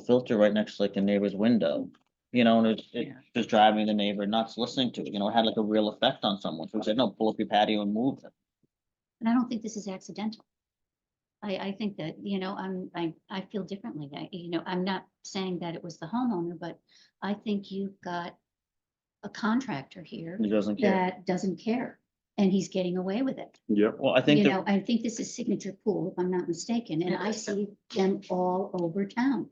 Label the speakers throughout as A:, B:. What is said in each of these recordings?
A: filter right next to like the neighbor's window. You know, and it's, it's
B: Yeah.
A: just driving the neighbor nuts listening to it, you know, it had like a real effect on someone, so we said, no, pull up your patio and move them.
B: And I don't think this is accidental. I, I think that, you know, I'm, I, I feel differently. I, you know, I'm not saying that it was the homeowner, but I think you've got a contractor here
A: He doesn't care.
B: that doesn't care and he's getting away with it.
C: Yep,
A: Well, I think
B: You
A: that
B: know, I think this is signature pool, if I'm not mistaken, and I see them all over town.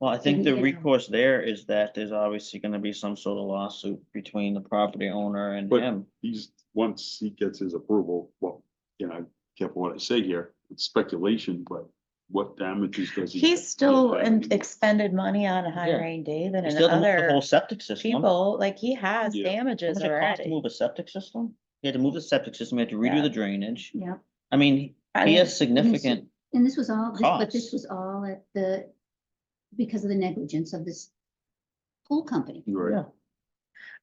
A: Well, I think the
B: you know.
A: recourse there is that there's obviously gonna be some sort of lawsuit between the property owner and
C: But-
A: him.
C: he's, once he gets his approval, well, you know, careful what I say here, it's speculation, but what damages does he?
D: He's still in- expended money on a high
A: Yeah.
D: rain day than
A: He
D: in
A: still had to move the
D: other
A: whole septic system. How
D: people, like he has
C: Yeah.
A: much
D: damages
A: it cost to
D: already.
A: Move a septic system? He had to move the septic system, he had to redo
D: Yeah.
A: the drainage.
B: Yeah.
A: I mean,
D: I
A: he
D: mean,
A: has significant,
B: And this was all, this- but this
A: Costs.
B: was all at the, because of the negligence of this pool company.
C: Right,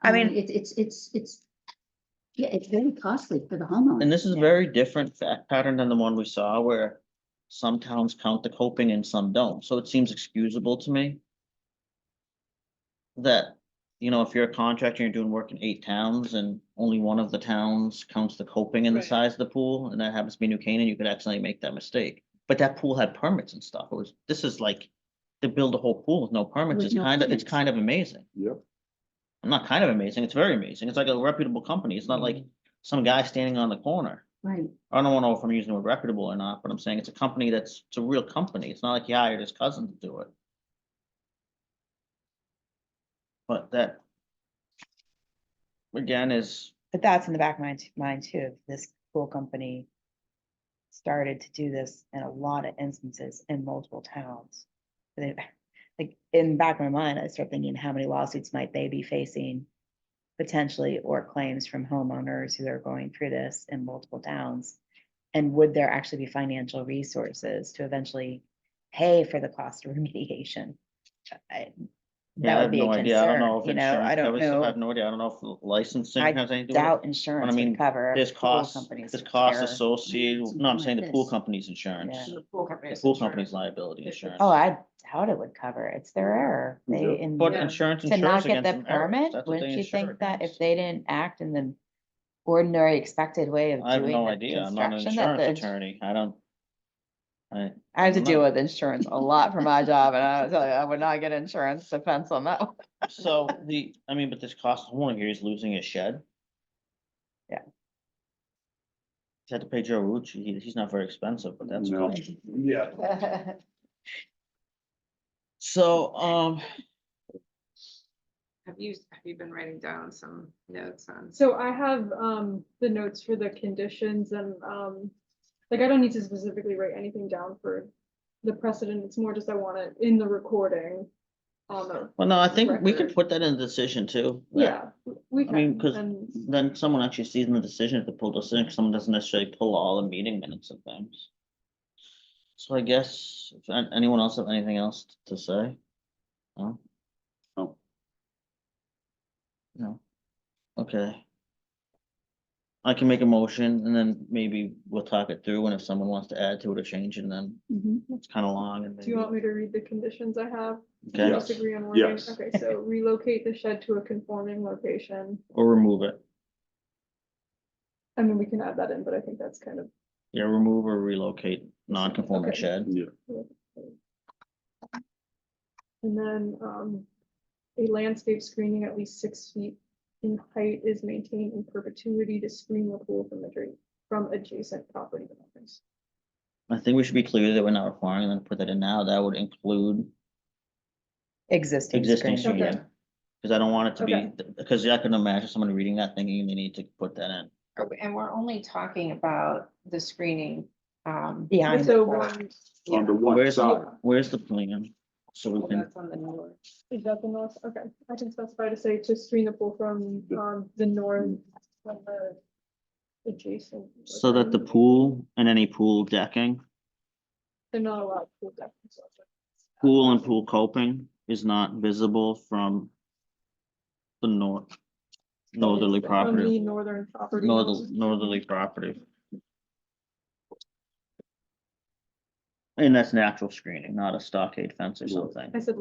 D: I mean,
B: Um, It's, it's, it's, it's, yeah, it's very costly for the homeowner.
A: and this is a very different fact pattern than the one we saw where some towns count the coping and some don't, so it seems excusable to me. That, you know, if you're a contractor, you're doing work in eight towns and only one of the towns counts the coping in the
E: Right.
A: size of the pool, and that happens to be New Canaan, you could accidentally make that mistake. But that pool had permits and stuff, it was, this is like, to build a whole pool with no permits
B: With
A: is
B: no
A: kind of, it's
B: permits.
A: kind of amazing.
C: yep,
A: I'm not kind of amazing, it's very amazing, it's like a reputable company, it's not like
B: Mm-hmm.
A: some guy standing on the corner.
B: Right,
A: I don't know if I'm using the word reputable or not, but I'm saying it's a company that's, it's a real company. It's not like he hired his cousin to do it. But that. Again, is,
D: but that's in the back of my, t- mind too, if this pool company started to do this in a lot of instances in multiple towns. They- Like, in the back of my mind, I start thinking, how many lawsuits might they be facing? Potentially, or claims from homeowners who are going through this in multiple towns? And would there actually be financial resources to eventually pay for the cost of remediation? I-
A: yeah,
D: That
A: I
D: would
A: have
D: be a
A: no idea. I don't
D: concern,
A: know if
D: you know,
A: insurance
D: I don't
A: covers it.
D: know
A: I have no idea. I don't know if licensing
D: I
A: has anything to do with
D: doubt insurance
A: mean,
D: would cover.
A: it. There's
D: pool
A: costs,
D: companies
A: there's
D: with
A: costs
D: error.
A: associated,
B: Something
A: no, I'm
B: like
A: saying the pool
B: this.
A: company's insurance,
D: Yeah.
E: The pool company.
A: the
E: is
A: pool
E: insured.
A: company's liability insurance.
D: Oh, I doubt it would cover. It's their error. They,
C: Yeah.
D: in
A: But
E: Yeah.
A: insurance
D: to not
A: insures
D: get
A: against
D: the
A: an error.
D: permit,
A: That's what they
D: wouldn't you
A: insure
D: think that if
A: against.
D: they didn't act in the ordinary expected way of
A: I have
D: doing
A: no
D: the
A: idea. I'm not an
D: construction that
A: insurance
D: the-
A: attorney. I don't. I,
D: I have to
A: I'm
D: deal
A: not-
D: with insurance a lot for my job and I tell you, I would not get insurance defense on that. one.
A: so the, I mean, but this cost homeowner here is losing his shed.
D: Yeah.
A: He had to pay Joe Rucci. He, he's not very expensive, but that's. a
C: No.
A: cost.
C: yeah.
A: So, um,
E: Have you, have you been writing down some notes on?
F: So I have, um, the notes for the conditions and, um, like, I don't need to specifically write anything down for the precedent, it's more just I want it in the recording. Um,
A: well, no, I think we could
F: Record.
A: put that in the decision too. that
F: yeah, we
A: I mean,
F: can,
A: 'cause-
F: and,
A: Then someone actually sees in the decision, if the pull decision, 'cause someone doesn't necessarily pull all the meeting minutes of things. So I guess, if an- anyone else have anything else to say? No?
C: No.
A: No. Okay. I can make a motion and then maybe we'll talk it through and if someone wants to add to it or change it, then
B: mhm.
A: it's kind of long and
F: Mm-hmm. do you
A: maybe.
F: want me to read the conditions I have?
A: Okay,
C: Yes.
F: Just agree on wording?
C: Yes.
F: Okay, so relocate the shed to a conforming location,
A: Or remove it.
F: I mean, we can add that in, but I think that's kind of,
A: Yeah, remove or relocate non-conforming
F: Okay.
A: shed.
F: and then, um, a landscape screening at least six feet in height is maintained in perpetuity to screen the pool from the drain, from adjacent property owners.
A: I think we should be clear that we're not requiring them to put that in now. That would include
D: Existing
A: existing
D: screening.
F: screen.
A: screening. Cause I don't want it to
F: Okay.
A: be, because I can imagine someone reading that thinking they need to put that in.
E: Are we- Oh, And we're only talking about the screening. um,
D: Behind
F: It's
D: the
F: over,
D: pool.
F: on-
C: On the one
A: Where's,
C: side,
A: where's the plan? So we can,
E: That's on the north.
F: is that the north, okay, I can specify to say to screen the pool from, um, the north, from the adjacent.
A: so that the pool and any pool decking,
F: They're not allowed pool decks.
A: pool and pool coping is not visible from the north, northerly
F: From the
A: property,
F: northern property.
A: northerly, northerly property. And that's natural screening, not a stockade fence or
C: Right.
A: something.
F: I said